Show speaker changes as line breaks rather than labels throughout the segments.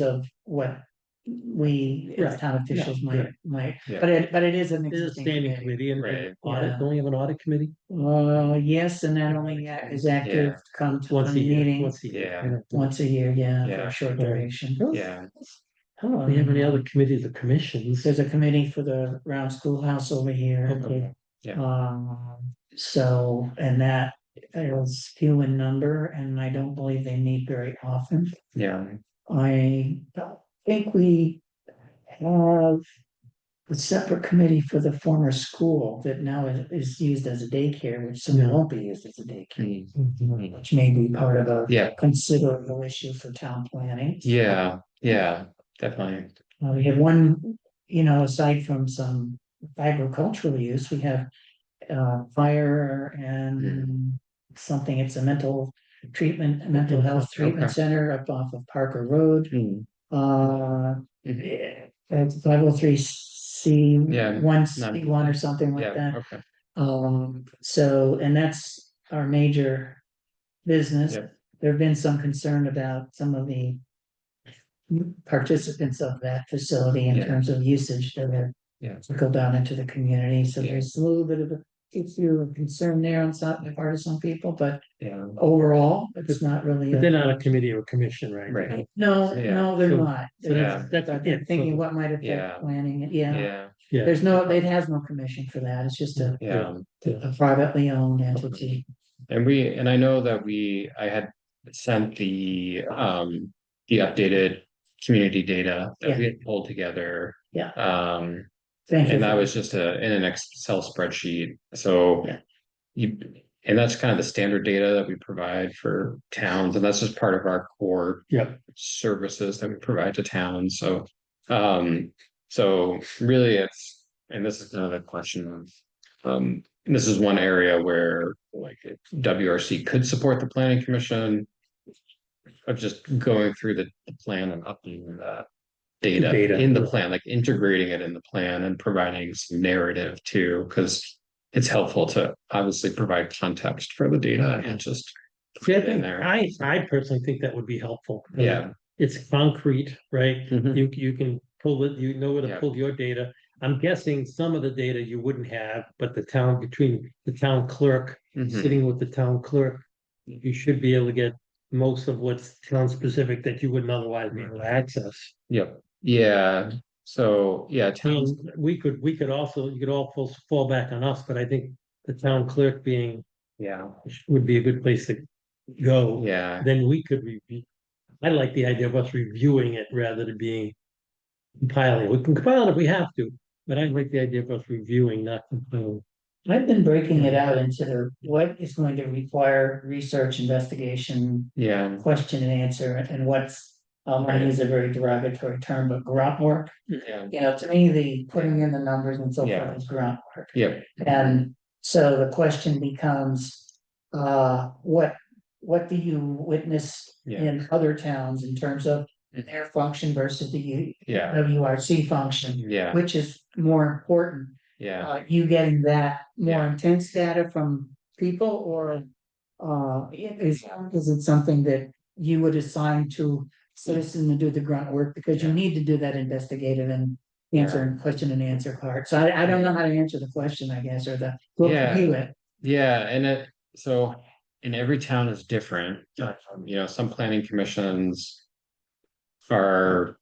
of what we
Right,
as town officials might,
right.
might,
Yeah.
but it, but it is an
It is a
existing.
standing
committee.
committee and
Right.
and audit,
Yeah.
don't we have an audit committee?
Uh, yes, and that only is active come to
Once
the
a year,
meeting,
once a year. uh,
Yeah.
I don't-
once a year, yeah, for
Yeah.
a short
Right.
duration. um,
Yeah,
I don't know if we have any other committees or commissions.
There's a committee for the round schoolhouse over here.
Okay.
Yeah.
Um, so, and that is few in number, and I don't believe they meet very often.
yeah,
I don't think we have a separate committee for the former school that now is, is used as a daycare, which soon
Yeah.
won't be used as a daycare.
Mhm.
Which may be part of a
yeah,
considerable issue for town planning.
yeah, yeah, definitely.
Uh, we have one, you know, aside from some agricultural use, we have uh, fire and something, it's a mental treatment, mental health treatment
Okay.
center up off of Parker Road.
Mm,
Uh, that's five oh three C,
Yeah,
one C
none.
one or something like
Yeah,
that.
okay,
Um, so, and that's our major business.
Yep.
There have been some concern about some of the participants of that facility in
Yeah.
terms of usage that have
yeah,
to go down into the community. So
Yeah.
there's a little bit of a issue of concern there on some, the part of some people, but
yeah,
overall, it's not really.
But
a-
they're not a committee or commission, right?
right,
No,
Yeah.
no, they're
So-
not.
So that's, that's.
But they're thinking what might
Yeah.
affect planning, it. yeah,
yeah,
Yeah,
there's no, it has no commission for that, it's just a,
yeah.
a privately owned entity.
And we, and I know that we, I had sent the, um, the updated community data that we had pulled together.
Yeah.
Um,
Thank you.
and that
for-
was just a, in an Excel spreadsheet, so.
Yeah.
You, and that's kind of the standard data that we provide for towns, and that's just part of our core
yeah,
services that we provide to towns, so. Um, so really it's, and this is another question of. Um, this is one area where like WRC could support the planning commission. Of just going through the, the plan and updating that data
Data.
in the plan, like integrating it in the plan and providing some narrative too, because. It's helpful to obviously provide context for the data and just.
See,
put
I
it in
think,
there.
I, I personally think that would be helpful.
Yeah.
It's concrete, right?
Mhm.
You, you can pull it, you know where to
Yeah.
pull your data. I'm guessing some of the data you wouldn't have, but the town, between the town clerk
Mhm.
sitting with the town clerk, you should be able to get most of what's town specific that you wouldn't otherwise
Mm-hmm.
be able to access.
Yep, yeah, so, yeah, towns,
Um, we could, we could also, you could all fall, fall back on us, but I think the town clerk being,
yeah,
would be a good place to go.
yeah,
Then we could review. I like the idea of us reviewing it rather than being compiling. We can compile it if we have to, but I like the idea of us reviewing, not compiling.
I've been breaking it out into the, what is going to require research, investigation,
yeah.
question and answer, and what's. Um, I use a very derogatory term, but grunt work,
Yeah,
you know, to me, the putting in the numbers and so
Yeah.
forth is grunt work.
yeah,
And so the question becomes, uh, what, what do you witness
Yeah.
in other towns in terms of
Mhm.
their function versus the U-
yeah,
WRC function?
yeah,
Which is more important,
yeah,
uh, you getting that more
Yeah.
intense data from people or? Uh, i- is, is it something that you would assign to citizen to do the grunt work, because you
Yeah.
need to do that investigative and. Answer and question and answer part, so I, I don't know how to answer the question, I guess, or the. we'll
Yeah.
review it.
yeah, and it, so, and every town is different, Um, you know, some planning commissions. Are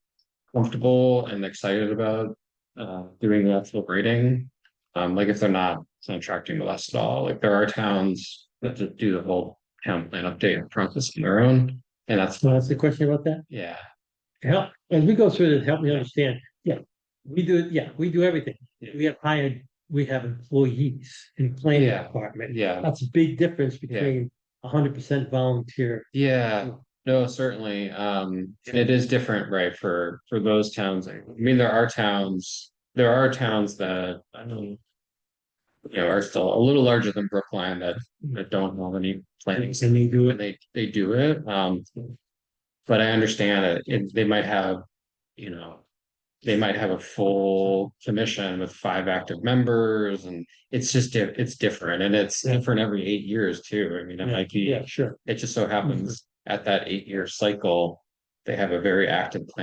comfortable and excited about uh doing the actual grading. Um, like if they're not, it's not attracting to us at all, like there are towns that just do the whole town plan update process on their own, and that's,
So that's the question about that?
yeah.
help, as we go through this, help me understand, yeah, we do, yeah, we do everything. We have hired, we have employees in planning
Yeah.
department.
Yeah,
That's a big difference between hundred percent volunteer.
yeah,
Mm.
no, certainly, um, and it is different, right, for, for those towns, I mean, there are towns, there are towns that, I mean. You know, are still a little larger than Brookline that,
Mm-hmm.
that don't have any planning,
And they do
but
it.
they, they do it, um. But I understand it, it, they might have, you know. They might have a full commission with five active members, and it's just, di- it's different, and it's
Yeah.
different every eight years too, I mean, it might be
Yeah, sure.
it just so happens at that eight-year cycle, they have a very active plan.